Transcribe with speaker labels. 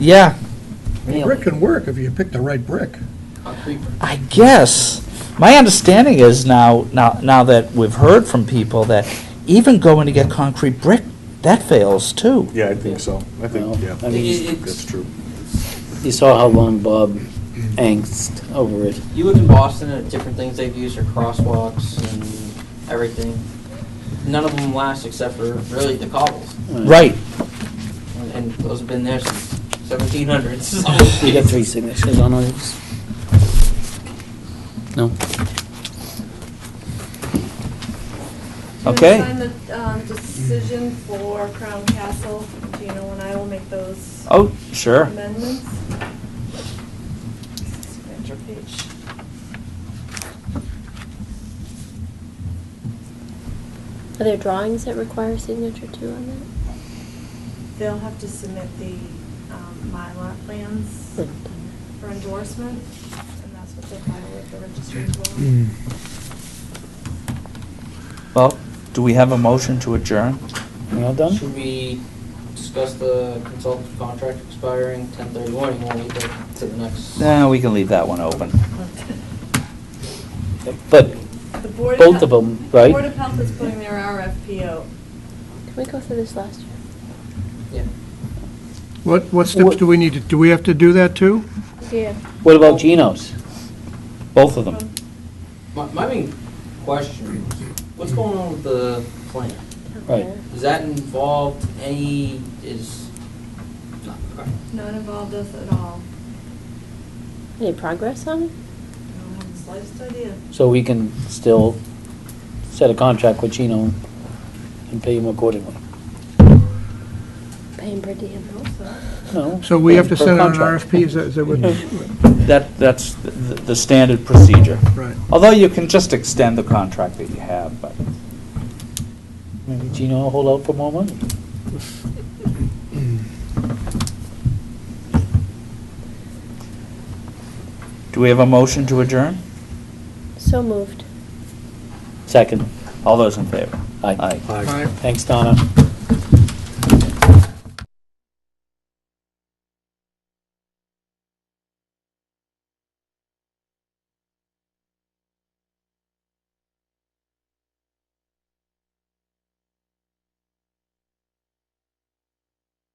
Speaker 1: Yeah,
Speaker 2: And Brick can work if you pick the right brick.
Speaker 1: I guess. My understanding is now, now, now that we've heard from people that even going to get concrete brick, that fails too.
Speaker 3: Yeah, I think so. I think, yeah,
Speaker 4: I mean,
Speaker 3: that's true.
Speaker 4: you saw how long Bob angst over it.
Speaker 5: You live in Boston, and different things they've used are crosswalks and everything. None of them last except for really the cobbles,
Speaker 4: Uh,
Speaker 1: Right.
Speaker 5: and- and those have been there since 1700s. so-
Speaker 4: You got three signatures on those? No?
Speaker 1: Okay.
Speaker 6: I'm going to sign the um, decision for Crown Castle, Gino and I will make those
Speaker 1: Oh, sure.
Speaker 6: amendments. Signature page.
Speaker 7: Are there drawings that require signature too on that?
Speaker 6: They'll have to submit the um, Mylar plans for endorsement, and that's what they'll file with the registry as
Speaker 4: Mm.
Speaker 2: Hmm.
Speaker 6: well.
Speaker 1: Well, do we have a motion to adjourn?
Speaker 4: We all done?
Speaker 5: Should we discuss the consultant's contract expiring 1031? You want to leave that to the next?
Speaker 1: Nah, we can leave that one open. But,
Speaker 6: The Board
Speaker 4: Both
Speaker 6: Health-
Speaker 4: of 'em,
Speaker 6: the
Speaker 4: right?
Speaker 6: Board of Health is putting their RFP out.
Speaker 7: Did we go through this last year?
Speaker 5: Yeah.
Speaker 2: What, what steps do we need to, do we have to do that too?
Speaker 7: Yeah.
Speaker 4: What about Geno's?
Speaker 1: both
Speaker 4: Oh.
Speaker 1: of them.
Speaker 5: My, my main question, what's going on with the plan?
Speaker 4: Right.
Speaker 5: Is that involved any, is, not, all right.
Speaker 6: Not involved us at all.
Speaker 7: Any progress on it?
Speaker 6: I don't have the slightest idea.
Speaker 4: So we can still set a contract with Gino and pay him accordingly?
Speaker 7: Paying per diem.
Speaker 6: I hope so.
Speaker 4: No?
Speaker 2: So we have to
Speaker 4: per
Speaker 2: send out an
Speaker 4: contract.
Speaker 2: RFP, is that, is that what,
Speaker 1: That, that's the, the standard procedure.
Speaker 2: right.
Speaker 1: Although you can just extend the contract that you have, but.
Speaker 4: Maybe Gino will hold out for more money.
Speaker 1: Do we have a motion to adjourn?
Speaker 7: So moved.
Speaker 4: Second.
Speaker 1: All those in favor?
Speaker 4: Aye.
Speaker 1: Aye.
Speaker 2: All right.
Speaker 4: Thanks, Donna.